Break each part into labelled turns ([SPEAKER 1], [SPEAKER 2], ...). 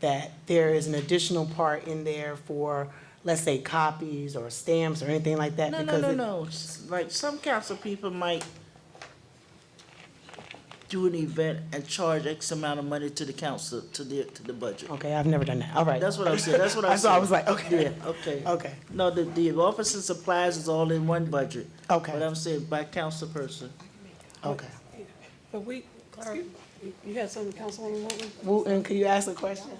[SPEAKER 1] that there is an additional part in there for, let's say, copies or stamps or anything like that?
[SPEAKER 2] No, no,
[SPEAKER 1] because
[SPEAKER 2] no,
[SPEAKER 1] it-
[SPEAKER 2] no. S- Like some council people might do an event and charge X amount of money to the council, to the, to the budget.
[SPEAKER 1] Okay, I've never done that, all right.
[SPEAKER 2] That's what I'm saying, that's what
[SPEAKER 1] I
[SPEAKER 2] I'm saying.
[SPEAKER 1] saw, I was like, okay,
[SPEAKER 2] Yeah, okay.
[SPEAKER 1] okay,
[SPEAKER 2] No, the, the office and supplies is all in one budget.
[SPEAKER 1] Okay.
[SPEAKER 2] But I'm saying by council person.
[SPEAKER 1] okay.
[SPEAKER 3] But we, Clara, you had something, Councilwoman Woodward?
[SPEAKER 1] Wooten, can you ask a question?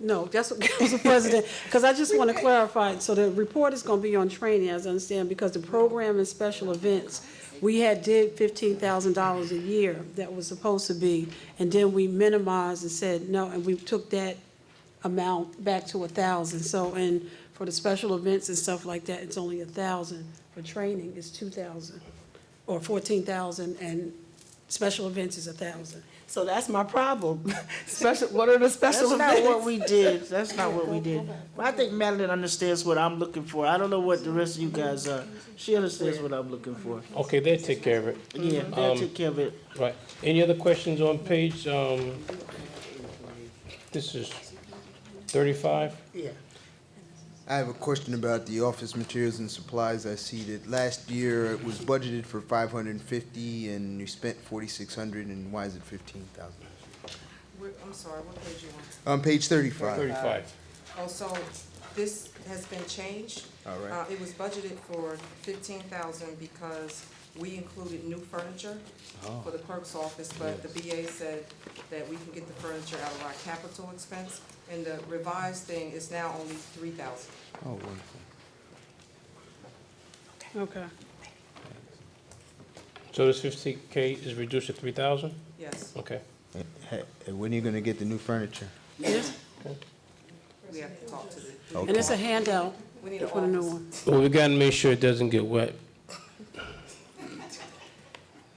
[SPEAKER 3] No, that's what Council President, because I just want to clarify, so the report is going to be on training, as I understand, because the program and special events, we had did fifteen thousand dollars a year that was supposed to be, and then we minimized and said no, and we took that amount back to a thousand, so, and for the special events and stuff like that, it's only a thousand. For training, it's two thousand, or fourteen thousand, and special events is a thousand.
[SPEAKER 1] So that's my problem. Special, what are the
[SPEAKER 2] That's
[SPEAKER 1] special
[SPEAKER 2] not what
[SPEAKER 1] events?
[SPEAKER 2] we did, that's not what we did. But I think Madeline understands what I'm looking for. I don't know what the rest of you guys are. She understands what I'm looking for.
[SPEAKER 4] Okay, they'll take care of it.
[SPEAKER 2] Yeah, they'll take care of it.
[SPEAKER 4] Right. Any other questions on page, um, this is thirty-five?
[SPEAKER 1] Yeah.
[SPEAKER 5] I have a question about the office materials and supplies I see that last year it was budgeted for five hundred and fifty and you spent forty-six hundred and why is it fifteen thousand?
[SPEAKER 6] Where- I'm sorry, what page you want?
[SPEAKER 5] On page thirty-five.
[SPEAKER 4] Thirty-five.
[SPEAKER 6] Oh, so this has been changed.
[SPEAKER 5] All right.
[SPEAKER 6] Uh, it was budgeted for fifteen thousand because we included new furniture
[SPEAKER 5] Oh.
[SPEAKER 6] for the clerk's office, but the BA said that we can get the furniture out of our capital expense, and the revised thing is now only three thousand.
[SPEAKER 5] Oh, wonderful.
[SPEAKER 3] Okay.
[SPEAKER 4] So this fifty K is reduced to three thousand?
[SPEAKER 6] Yes,
[SPEAKER 4] Okay.
[SPEAKER 5] Hey, and when are you gonna get the new furniture?
[SPEAKER 6] we have to talk to the,
[SPEAKER 3] And it's a handout
[SPEAKER 6] we need an
[SPEAKER 3] for the new
[SPEAKER 6] office.
[SPEAKER 3] one.
[SPEAKER 4] Well, we gotta make sure it doesn't get wet.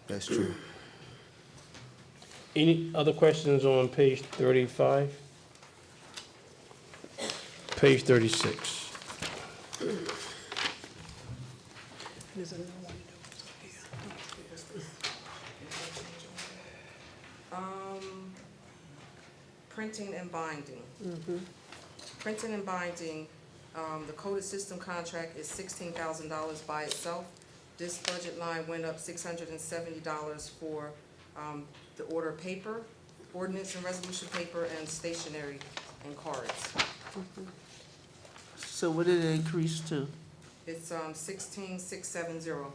[SPEAKER 5] That's true.
[SPEAKER 4] Any other questions on page thirty-five? Page thirty-six.
[SPEAKER 3] There's another one.
[SPEAKER 6] Um, printing and binding. Printing and binding, um, the coded system contract is sixteen thousand dollars by itself. This budget line went up six hundred and seventy dollars for, um, the order of paper, ordinance and resolution paper, and stationery and cards.
[SPEAKER 2] So what did it increase to?
[SPEAKER 6] It's, um, sixteen, six, seven, zero.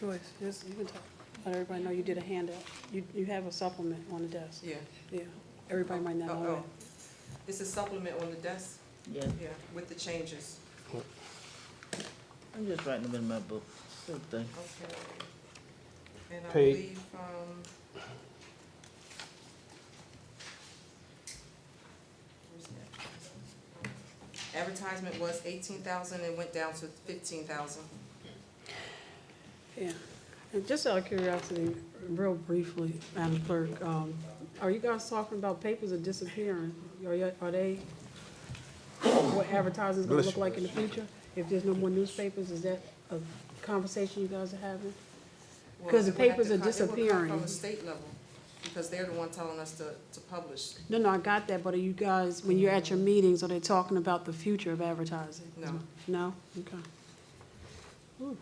[SPEAKER 3] Joyce, yes, you can talk. Let everybody know you did a handout. You, you have a supplement on the desk.
[SPEAKER 6] Yeah.
[SPEAKER 3] Yeah, everybody might
[SPEAKER 6] Oh,
[SPEAKER 3] not know
[SPEAKER 6] oh.
[SPEAKER 3] that.
[SPEAKER 6] It's a supplement on the desk,
[SPEAKER 2] Yeah,
[SPEAKER 6] yeah, with the changes.
[SPEAKER 2] I'm just writing them in my book. Same thing.
[SPEAKER 6] Okay. And I
[SPEAKER 4] Pay-
[SPEAKER 6] believe, um. where's that? Advertisement was eighteen thousand and went down to fifteen thousand.
[SPEAKER 3] Yeah. And just out of curiosity, real briefly, Madam Clerk, um, are you guys talking about papers are disappearing? Are, you- are they, what advertising's gonna look like in the future? If there's no more newspapers, is that a conversation you guys are having? 'Cause the papers are
[SPEAKER 6] From
[SPEAKER 3] disappearing.
[SPEAKER 6] the state level, because they're the one telling us to, to publish.
[SPEAKER 3] No, no, I got that, but are you guys, when you're at your meetings, are they talking about the future of advertising?
[SPEAKER 6] No.
[SPEAKER 3] No? Okay.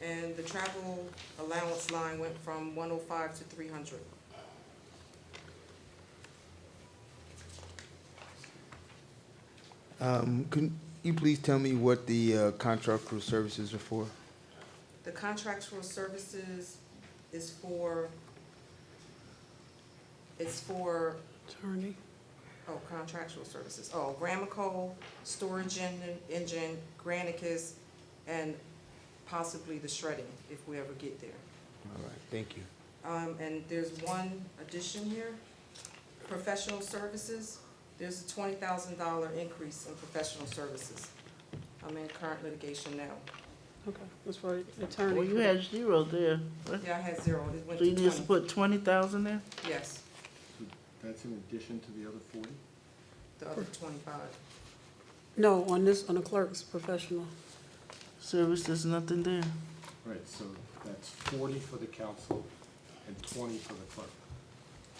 [SPEAKER 6] And the travel allowance line went from one oh five to three hundred.
[SPEAKER 5] Um, can you please tell me what the, uh, contractual services are for?
[SPEAKER 6] The contractual services is for, it's for
[SPEAKER 3] Attorney?
[SPEAKER 6] Oh, contractual services, oh, Gramico, Storage Engine- Engine, Granicus, and possibly the shredding, if we ever get there.
[SPEAKER 5] All right, thank you.
[SPEAKER 6] Um, and there's one addition here, professional services, there's a twenty thousand dollar increase in professional services. I'm in current litigation now.
[SPEAKER 3] Okay, that's for attorney.
[SPEAKER 2] Well, you had zero there.
[SPEAKER 6] Yeah, I had zero, it went
[SPEAKER 2] So you
[SPEAKER 6] to
[SPEAKER 2] need to
[SPEAKER 6] twenty,
[SPEAKER 2] put twenty thousand there?
[SPEAKER 6] yes,
[SPEAKER 7] That's in addition to the other forty?
[SPEAKER 6] the other twenty-five.
[SPEAKER 3] No, on this, on the clerk's professional.
[SPEAKER 2] Service, there's nothing there.
[SPEAKER 7] Right, so that's forty for the council and twenty for the clerk.